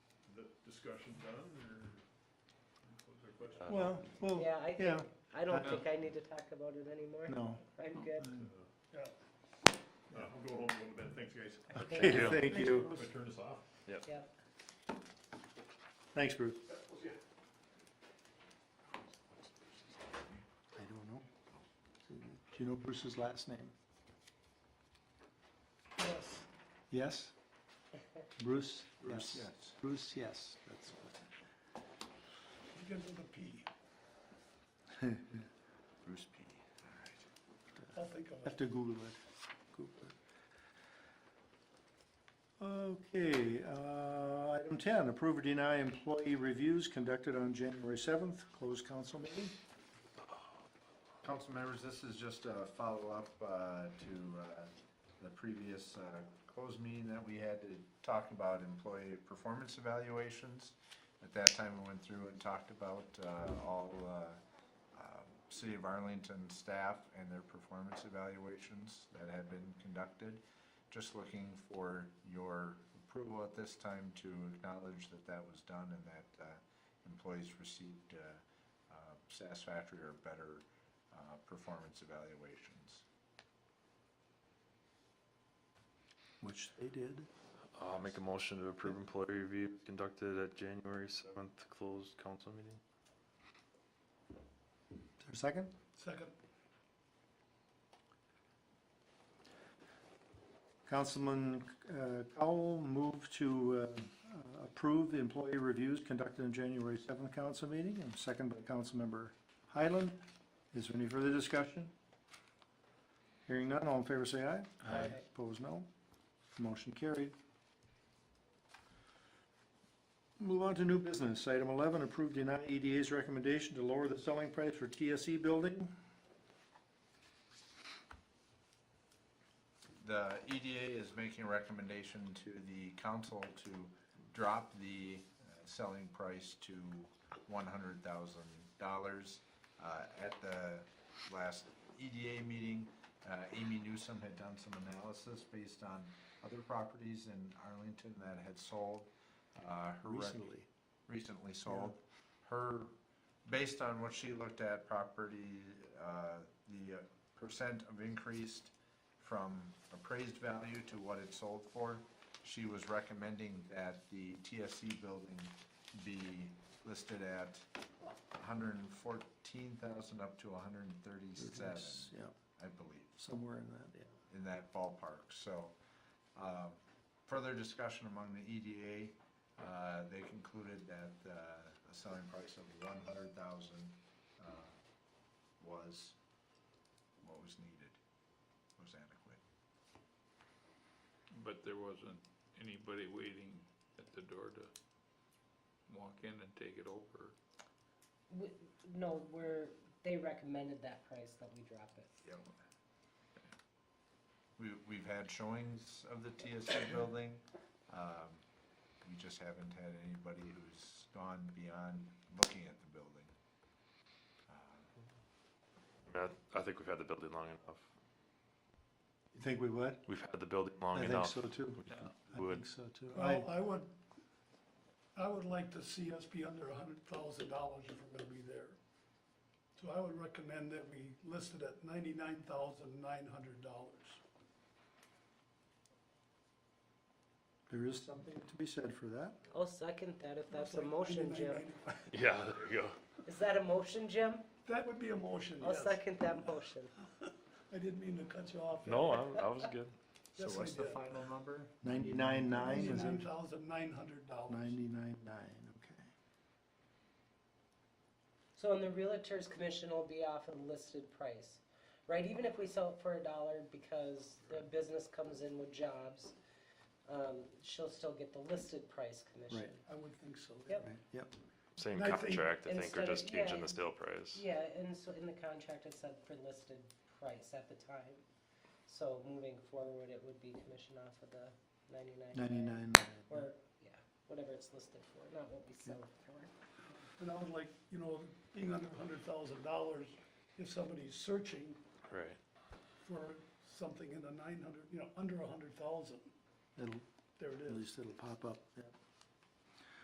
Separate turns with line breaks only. discussion done, or was there questions?
Uh,
Well, well,
Yeah, I,
yeah,
I don't
Uh,
think I need to talk about it anymore.
no.
I'm good.
Uh, uh, I'll go home and go to bed, thanks guys.
Thank
you.
Thank you.
If I turn this off.
Yep.
Thanks, Bruce. I don't know. Do you know Bruce's last name?
Yes.
Yes? Bruce?
Bruce,
Yes.
yes.
Bruce, yes, that's what.
Begins with a P,
Bruce P. All right.
I'll think of
Have to Google it. Google it. Okay, uh, item ten, approve or deny employee reviews conducted on January seventh, closed council meeting.
Council members, this is just a follow-up uh, to uh, the previous uh, closed meeting that we had to talk about employee performance evaluations. At that time, we went through and talked about uh, all uh, um, City of Arlington staff and their performance evaluations that had been conducted. Just looking for your approval at this time to acknowledge that that was done and that uh, employees received uh, uh, satisfactory or better uh, performance evaluations.
Which they did.
Uh, I'll make a motion to approve employee review conducted at January seventh closed council meeting.
Is there a second?
Second.
Councilman uh, Cowell moved to uh, uh, approve the employee reviews conducted in January 7th council meeting, and second by Councilmember Highland. Is there any further discussion? Hearing none, all in favor say aye.
Aye.
Opposed, no. Motion carried. Move on to new business. Item 11, approve deny EDA's recommendation to lower the selling price for TSE building.
The EDA is making a recommendation to the council to drop the uh, selling price to one hundred thousand dollars. Uh, At the last EDA meeting, uh, Amy Newsom had done some analysis based on other properties in Arlington that had sold. Uh, Her rec-
Recently.
recently sold. Her, based on what she looked at property, uh, the percent of increased from appraised value to what it sold for, she was recommending that the TSC building be listed at hundred and fourteen thousand up to hundred and thirty-seven,
Yeah,
I believe
somewhere in that, yeah.
in that ballpark. So, uh, further discussion among the EDA, uh, they concluded that uh, a selling price of one hundred thousand uh, was what was needed, was adequate.
But there wasn't anybody waiting at the door to walk in and take it over.
We- No, we're, they recommended that price that we drop it.
Yep. We, we've had showings of the TSC building. Um, We just haven't had anybody who's gone beyond looking at the building. Uh,
I, I think we've had the building long enough.
You think we would?
We've had the building long
I think
enough.
so too. I
Would.
think so too. I,
Well, I would, I would like to see us be under a hundred thousand dollars if we're gonna be there. So I would recommend that we list it at ninety-nine thousand nine hundred dollars.
there is something to be said for that.
I'll second that if that's a motion, Jim.
Yeah, there you go.
Is that a motion, Jim?
That would be a motion,
I'll
yes.
second that motion.
I didn't mean to cut you off.
No, I, I was good.
So
Yes, I
what's the
did.
final number?
Ninety-nine nine, is
Ninety-nine
it?
thousand nine hundred dollars.
Ninety-nine nine, okay.
So and the Realtors Commission will be off a listed price, right? Even if we sell it for a dollar because the business comes in with jobs, um, she'll still get the listed price commission.
Right.
I would think so.
Yep.
Right, Yep,
Same
And I think-
contract, I think,
Instead
we're
of-
just changing the
yeah.
sale price.
Yeah, and so in the contract it said for listed price at the time. So moving forward, it would be commission off of the ninety-nine.
ninety-nine nine.
Or, yeah, whatever it's listed for, not what we sell it for.
And I would like, you know, being under a hundred thousand dollars, if somebody's searching
Right.
for something in the nine hundred, you know, under a hundred thousand,
It'll,
there it
at
is.
least it'll pop up, yep.